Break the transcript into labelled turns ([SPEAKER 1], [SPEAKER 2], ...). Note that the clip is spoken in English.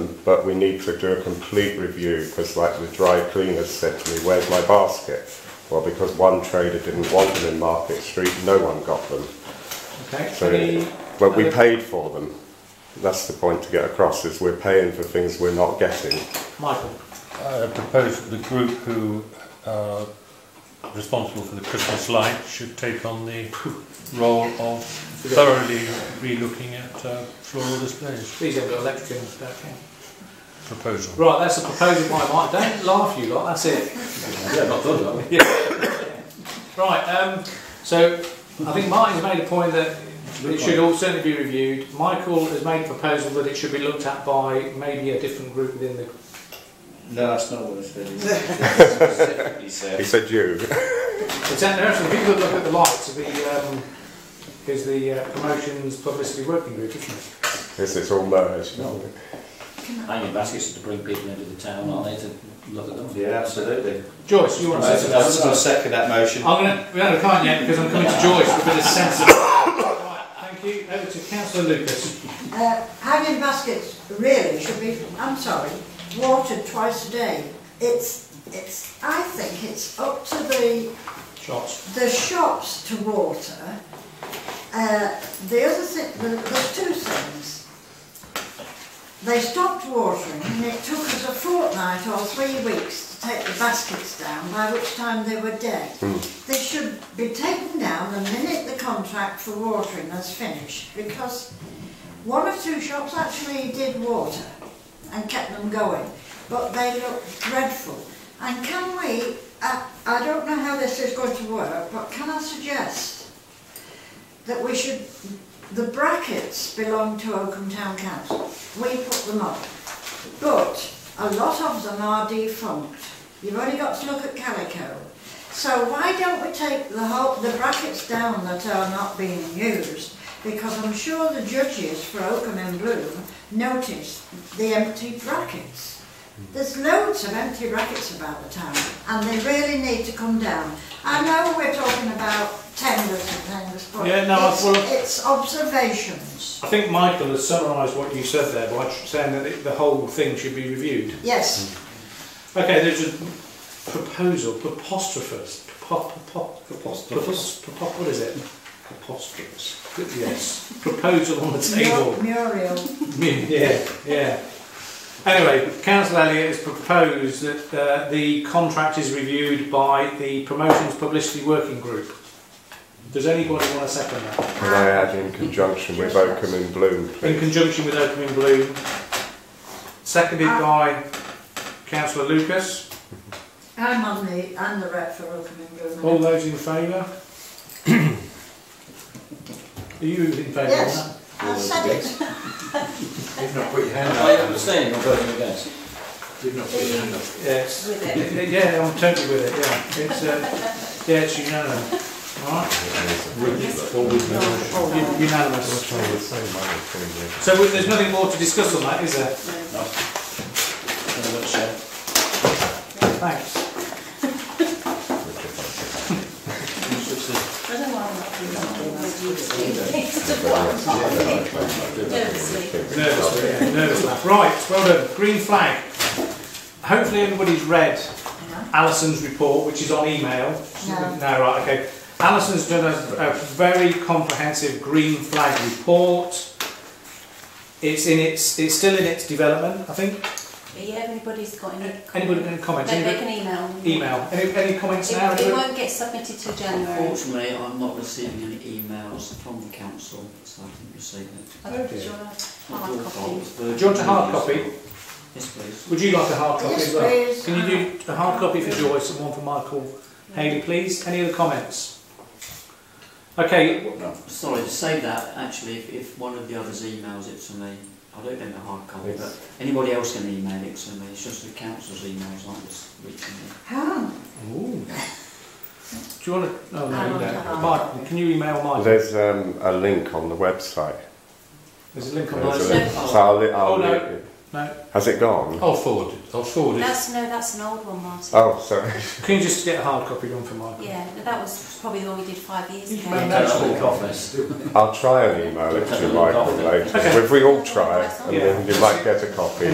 [SPEAKER 1] but we need to do a complete review because, like the dry cleaners said to me, "Where's my basket?" Well, because one trader didn't want them in Market Street, no one got them.
[SPEAKER 2] Okay.
[SPEAKER 1] So,
[SPEAKER 2] Any
[SPEAKER 1] but we
[SPEAKER 2] other-
[SPEAKER 1] paid for them. That's the point to get across: is we're paying for things we're not getting.
[SPEAKER 2] Michael.
[SPEAKER 3] I propose that the group who are responsible for the Christmas light should take on the role of thoroughly re-looking at uh, floral displays
[SPEAKER 2] These have got electric in them, don't they?
[SPEAKER 3] proposal.
[SPEAKER 2] Right, that's a proposal by Mike. Don't laugh, you lot. That's it.
[SPEAKER 4] Yeah, not done, are we?
[SPEAKER 2] Right, um, so I think Martin's made a point that it should all certainly be reviewed. Michael has made a proposal that it should be looked at by maybe a different group within the.
[SPEAKER 4] No, that's not what I said. Specifically
[SPEAKER 1] He
[SPEAKER 4] said.
[SPEAKER 1] said you.
[SPEAKER 2] It's out there are some people that look at the lights of the. Um, is the uh, promotions publicity working group, isn't it?
[SPEAKER 1] This is all merged.
[SPEAKER 5] Hanging baskets to bring people into the town, aren't they, to look at them?
[SPEAKER 4] Yeah, absolutely.
[SPEAKER 2] Joyce, you want to
[SPEAKER 4] Right,
[SPEAKER 2] say
[SPEAKER 4] I'll
[SPEAKER 2] something?
[SPEAKER 4] I'll second that motion.
[SPEAKER 2] I'm going to. We haven't can't yet because I'm coming to Joyce with a bit of sense. of- right, thank you. Over to Councillor Lucas.
[SPEAKER 6] Uh, hanging baskets really should be, I'm sorry, watered twice a day. It's, it's, I think it's up to the,
[SPEAKER 2] Shots.
[SPEAKER 6] the shops to water. Uh, the other thing, there- there's two things. They stopped watering and it took us a fortnight or three weeks to take the baskets down, by which time they were dead. They should be taken down the minute the contract for watering is finished because one or two shops actually did water and kept them going, but they looked dreadful. And can we, I, I don't know how this is going to work, but can I suggest that we should, the brackets belong to Oakham Town Council. We put them up. But a lot of them are defunct. You've only got to look at Calico. So why don't we take the whole, the brackets down that are not being used? Because I'm sure the judges for Oakham and Bloom noticed the empty brackets. There's loads of empty brackets about the town and they really need to come down. I know we're talking about tenders and things, but
[SPEAKER 2] Yeah, no, I
[SPEAKER 6] it's,
[SPEAKER 2] follow-
[SPEAKER 6] it's observations.
[SPEAKER 2] I think Michael has summarised what you said there by tr- saying that it- the whole thing should be reviewed.
[SPEAKER 6] Yes.
[SPEAKER 2] Okay, there's a proposal, preposterous, prepo- prepo-
[SPEAKER 4] Preposterous.
[SPEAKER 2] prepos- prepo- what is it? Preposterous. Yes. proposal on the table.
[SPEAKER 6] Mur- Muriel.
[SPEAKER 2] yeah, yeah. Anyway, Councillor Elliott has proposed that uh, the contract is reviewed by the Promotions Publicity Working Group. Does anybody want to second that?
[SPEAKER 1] Can I add in conjunction with Oakham and Bloom,
[SPEAKER 2] In
[SPEAKER 1] please?
[SPEAKER 2] conjunction with Oakham in Blue, seconded by Councillor Lucas.
[SPEAKER 6] I'm on the, I'm the rep for Oakham and Bloom.
[SPEAKER 2] All those in favour? Are you in favour
[SPEAKER 6] Yes.
[SPEAKER 2] of that?
[SPEAKER 6] I said it.
[SPEAKER 4] You've not put your hand
[SPEAKER 5] Are you abstaining or voting against?
[SPEAKER 4] You've not put your hand up.
[SPEAKER 2] Yes.
[SPEAKER 6] With it.
[SPEAKER 2] Yeah, I'm totally with it, yeah. It's, uh, yeah, it's unanimous. All right,
[SPEAKER 6] No,
[SPEAKER 2] U- unanimous.
[SPEAKER 1] Oh, it's so money,
[SPEAKER 2] So we- there's nothing more to discuss on that, is there?
[SPEAKER 4] In a nutshell.
[SPEAKER 2] Thanks.
[SPEAKER 7] I don't want to Nervously.
[SPEAKER 2] Nervous, yeah, nervous laugh. Right, well done. Green flag. Hopefully everybody's read Alison's report, which is on email.
[SPEAKER 6] No.
[SPEAKER 2] right, okay. Alison's done a, a very comprehensive green flag report. It's in its, it's still in its development, I think.
[SPEAKER 7] Yeah, anybody's got any...
[SPEAKER 2] Anybody got any comments?
[SPEAKER 7] They, they
[SPEAKER 2] Anybody,
[SPEAKER 7] can email. me.
[SPEAKER 2] email. Any, any comments now?
[SPEAKER 7] It, it won't get submitted till January.
[SPEAKER 5] Unfortunately, I'm not receiving any emails from the council, so I didn't receive it.
[SPEAKER 7] I
[SPEAKER 2] Oh
[SPEAKER 7] don't
[SPEAKER 2] dear.
[SPEAKER 7] sure I
[SPEAKER 5] Not your
[SPEAKER 7] hard
[SPEAKER 5] fault,
[SPEAKER 7] copy.
[SPEAKER 5] it's Virgin
[SPEAKER 2] Uh, Do you want a hard copy? Would
[SPEAKER 5] Media's fault. Yes, please.
[SPEAKER 2] you like a hard copy as
[SPEAKER 6] Yes,
[SPEAKER 2] well?
[SPEAKER 6] please.
[SPEAKER 2] Can you do a hard copy for Joyce and one for Michael Haley, please? Any other comments? Okay,
[SPEAKER 5] Sorry, to say that, actually, if, if one of the others emails it to me, I don't get a hard copy, but anybody else can email it to me, it's just the council's emails aren't just reaching me.
[SPEAKER 6] Huh.
[SPEAKER 2] Ooh. do you want to? No,
[SPEAKER 6] I
[SPEAKER 2] no,
[SPEAKER 6] want a
[SPEAKER 2] no.
[SPEAKER 6] hard
[SPEAKER 2] Michael,
[SPEAKER 6] copy.
[SPEAKER 2] can you email
[SPEAKER 1] Well,
[SPEAKER 2] Michael?
[SPEAKER 1] There's um, a link on the website.
[SPEAKER 2] There's a link on
[SPEAKER 1] There's a
[SPEAKER 2] the
[SPEAKER 5] There's
[SPEAKER 1] link.
[SPEAKER 5] no-
[SPEAKER 1] So I'll, li- I'll
[SPEAKER 2] Oh, no.
[SPEAKER 1] link it.
[SPEAKER 2] No.
[SPEAKER 1] Has it gone?
[SPEAKER 3] I'll forward it, I'll forward it.
[SPEAKER 7] That's, no, that's an old one, Martin.
[SPEAKER 1] Oh, sorry.
[SPEAKER 2] Can you just get a hard copy one for Michael?
[SPEAKER 7] Yeah, that was probably the one we did five years ago.
[SPEAKER 2] Yeah,
[SPEAKER 5] Don't
[SPEAKER 2] that's
[SPEAKER 5] look
[SPEAKER 2] cool.
[SPEAKER 5] office.
[SPEAKER 1] I'll try and email it to Michael later.
[SPEAKER 2] Okay.
[SPEAKER 1] If we all try, and
[SPEAKER 2] Yeah.
[SPEAKER 1] then you might get a copy.